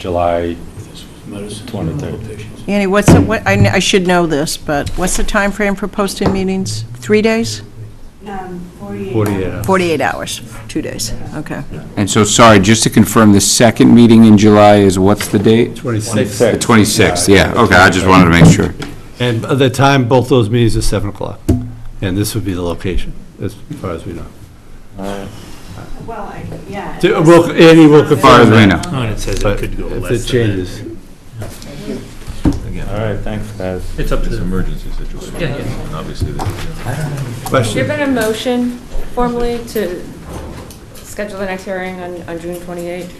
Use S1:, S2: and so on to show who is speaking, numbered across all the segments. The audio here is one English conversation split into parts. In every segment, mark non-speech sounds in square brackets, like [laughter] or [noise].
S1: July,
S2: Medicine.
S1: 23rd.
S2: Patients.
S3: Annie, what's, the- what, I kn- I should know this, but what's the time frame for posting meetings? Three days?
S4: Um, 48.
S5: 48 hours.
S3: 48 hours, two days, okay.
S6: And so, sorry, just to confirm, the second meeting in July is, what's the date?
S5: 26.
S6: The 26th, yeah, okay, I just wanted to make sure.
S5: And by the time, both those meetings are 7 o'clock. And this would be the location, as far as we know.
S4: Well, I- yeah.
S5: Do- we'll- Annie will confirm
S6: Far as we
S5: that,
S6: know.
S2: Oh, and it says it
S5: but
S2: could go less than
S5: If
S2: that.
S5: it changes,
S1: All right, thanks, guys.
S2: It's up to
S7: It's an
S2: them.
S7: emergency situation.
S2: Yeah, yeah.
S7: And Obviously, this is-
S8: Has there
S5: question,
S8: been a motion formally to schedule the next hearing on, on June 28th?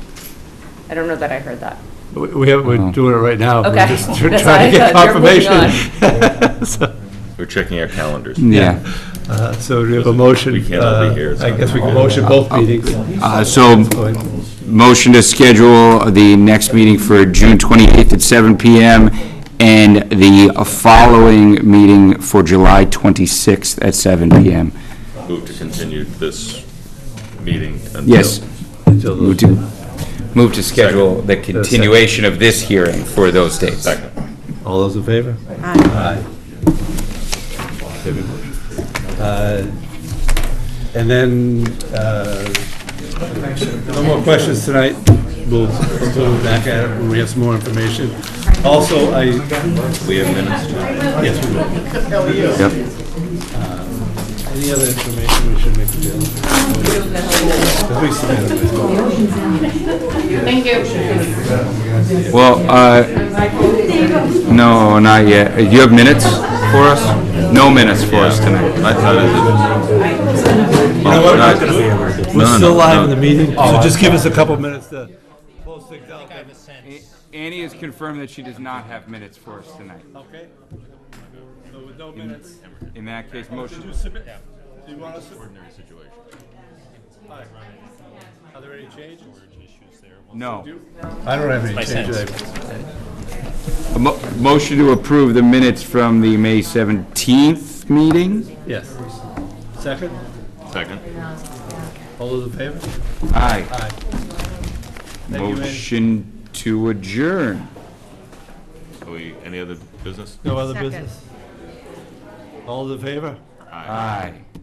S8: I don't know that I heard that.
S5: we- we have,
S6: Oh.
S5: we're doing it right now. We're
S8: Okay.
S5: just [laughs] tr-
S8: That's
S5: trying to
S8: what I
S5: get
S8: thought. You're moving
S5: confirmation. [laughs] So,
S7: we're checking our calendars.
S6: Yeah.
S5: uh, So we have a motion.
S7: We can't all be
S5: uh,
S7: here, it's
S5: I
S7: not
S5: guess we can
S7: possible.
S5: motion both meetings.
S6: Uh, So,
S5: Go ahead.
S6: motion to schedule the next meeting for June 28th at 7 PM, and the following meeting for July 26th at 7 PM.
S1: Mm.
S7: Move to continue this meeting until.
S6: Yes.
S5: Until
S6: Move
S5: those-
S6: to- move to schedule the continuation of this hearing for those dates.
S7: Second.
S5: All those in favor? Aye. Every motion. Uh, And then, uh, no more questions tonight. We'll go back at it when we have some more information. Also, I,
S7: We have minutes to.
S5: yes, we will.
S6: Yep.
S5: Any other information we should make available? Because we submitted it.
S8: Thank you.
S6: Well, uh, no, not yet. Uh, You have minutes for us? No minutes for us tonight.
S7: I thought it was.
S5: We're
S7: No,
S5: still
S7: no,
S5: live
S7: no. Oh,
S5: in the meeting, so just give us a couple minutes to post things out.
S6: Annie has confirmed that she does not have minutes for us tonight.
S5: Okay. So with no minutes,
S6: In that case, motion.
S5: you submit, do you want us to? Ordinary situation. Are there any changes?
S6: No.
S5: I don't have any changes.
S6: A mo- Motion to approve the minutes from the May 17th meeting?
S5: Yes. Second,
S7: Second.
S5: all those in favor?
S6: Aye.
S5: Aye. Thank you, Annie.
S6: Motion to adjourn.
S7: Are we, any other business?
S5: No other business? All those in favor?
S6: Aye.